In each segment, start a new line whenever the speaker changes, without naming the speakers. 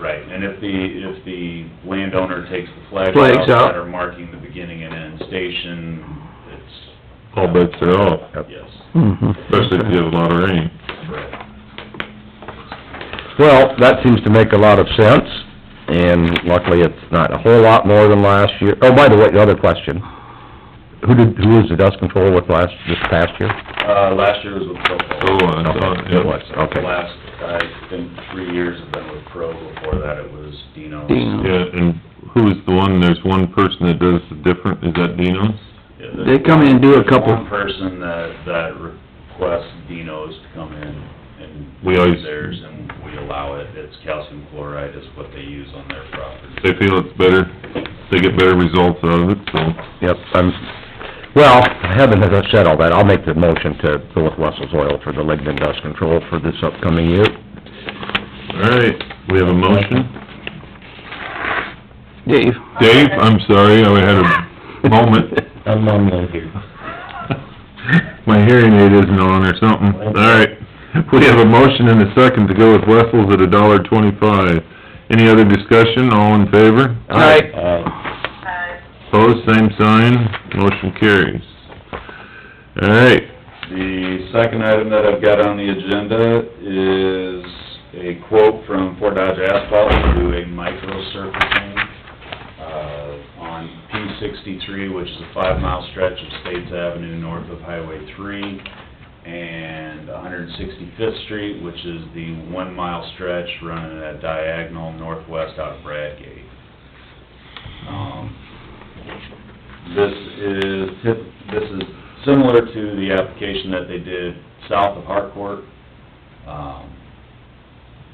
Right, and if the, if the landowner takes the flags out
Flags out.
that are marking the beginning and end station, it's,
All bets are off,
yes,
Mm-hmm.
especially if you have a lot of rain.
correct.
Well, that seems to make a lot of sense, and luckily it's not a whole lot more than last year. Oh, by the way, the other question, who did, who was the dust control with last, this past year?
Uh, last year was with
So,
Oh,
Propo.
uh, so,
It was,
yeah.
The
okay.
Last, I think, three years have been with Pro, before that it was Dino's.
Dino.
Yeah, and who is the one, there's one person that does the different, is that Dino's?
Yeah, there's
They come in and do a
one-
couple-
One person that, that requests Dino's to come in and.
We always-
do Theirs, and we allow it, it's calcium chloride is what they use on their property.
They feel it's better, they get better results out of it, so.
Yep, I'm, well, having said all that, I'll make the motion to go with Russell's Oil for the lignin dust control for this upcoming year.
All right, we have a motion.
Dave,
Dave, I'm sorry, I had a moment.
I'm mumbling here.
My hearing aid isn't on or something. All right, we have a motion and a second to go with Wessels at a dollar twenty-five. Any other discussion, all in favor?
Aye.
Opposed, same sign, motion carries. All right,
The second item that I've got on the agenda is a quote from Fort Dodge Asphalt to do a micro surfacing, uh, on P sixty-three, which is a five-mile stretch of States Avenue north of Highway three, and one hundred and sixty-fifth Street, which is the one-mile stretch running at diagonal northwest out of Bradgate. Um, this is, tip- this is similar to the application that they did south of Harcourt. Um,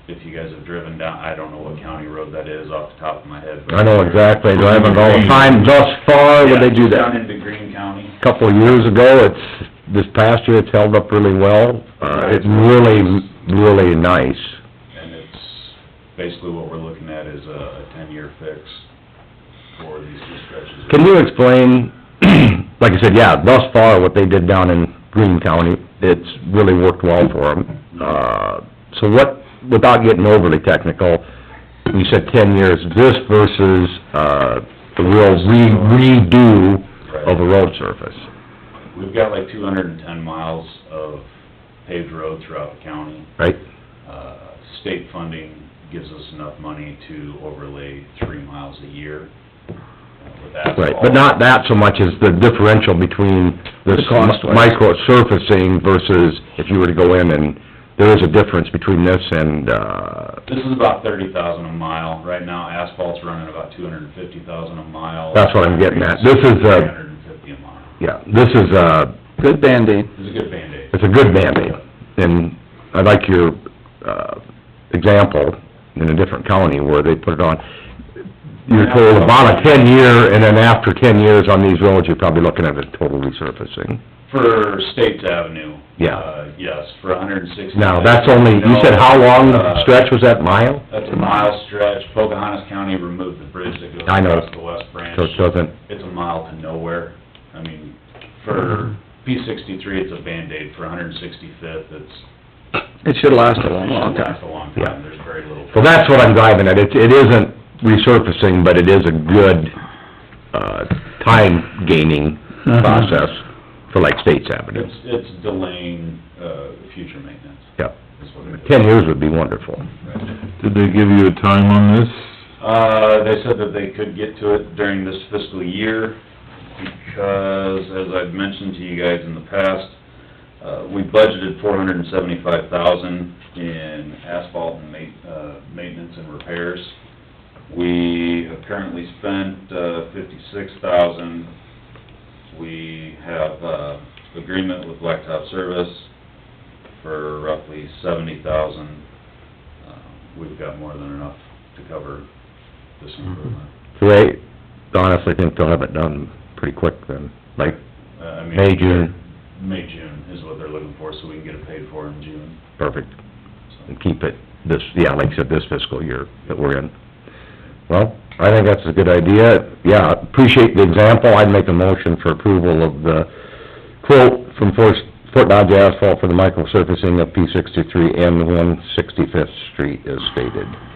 If you guys have driven down, I don't know what county road that is off the top of my head. but-
I know exactly, I haven't all the time thus far,
Yeah,
when they do
Down
that.
into Greene County.
Couple of years ago, it's, this past year, it's held up really well. Uh, it's really, really nice.
And it's, basically what we're looking at is a ten-year fix for these two stretches.
Can you explain, like I said, yeah, thus far, what they did down in Greene County, it's really worked well for them. Uh, so what, without getting overly technical, you said ten years, this versus, uh, the real re- redo of a road surface.
We've got like two hundred and ten miles of paved road throughout the county.
Right.
Uh, State funding gives us enough money to overlay three miles a year uh, with asphalt.
Right, but not that so much as the differential between this
The cost was.
micro surfacing versus if you were to go in and, there is a difference between this and, uh,
This is about thirty thousand a mile. Right now asphalt's running about two hundred and fifty thousand a mile.
That's what I'm getting at. This is, uh,
Three hundred and fifty a mile.
yeah, this is a,
good Band-Aid.
It's a good Band-Aid.
it's a good Band-Aid. And I like your, uh, example in a different county where they put it on. You're told about a ten year, and then after ten years on these roads, you're probably looking at a total resurfacing.
For States Avenue.
Yeah.
uh, Yes, for hundred and sixty.
Now, that's only, you said how long
Uh,
stretch was that mile?
That's a mile stretch. Pocahontas County removed the bridge that goes
I know.
across the west branch.
So it doesn't,
It's a mile to nowhere. I mean, for P sixty-three, it's a Band-Aid. For hundred and sixty-fifth, it's.
It should've lasted a long, long
It's
time.
a long
Yeah.
time. There's very little.
well, that's what I'm driving at. It, it isn't resurfacing, but it is a good, uh, time gaining
Uh-huh.
process for like States Avenue.
It's, it's delaying, uh, future maintenance.
Yep.
Is what it is.
Ten years would be wonderful.
Right.
did they give you a time on this?
Uh, they said that they could get to it during this fiscal year, because, as I've mentioned to you guys in the past, uh, we budgeted four hundred and seventy-five thousand in asphalt and ma- uh, maintenance and repairs. We have currently spent, uh, fifty-six thousand. We have, uh, agreement with Blacktop Service for roughly seventy thousand. Uh, We've got more than enough to cover this improvement.
So they honestly think they'll have it done pretty quick then, like
Uh, I mean,
May, June,
May, June is what they're looking for, so we can get it paid for in June.
perfect,
So,
and keep it this, yeah, like I said, this fiscal year that we're in. Well, I think that's a good idea, yeah, appreciate the example, I'd make a motion for approval of the quote from Fort, Fort Dodge Asphalt for the microsurfacing of P sixty-three and one sixty-fifth street as stated.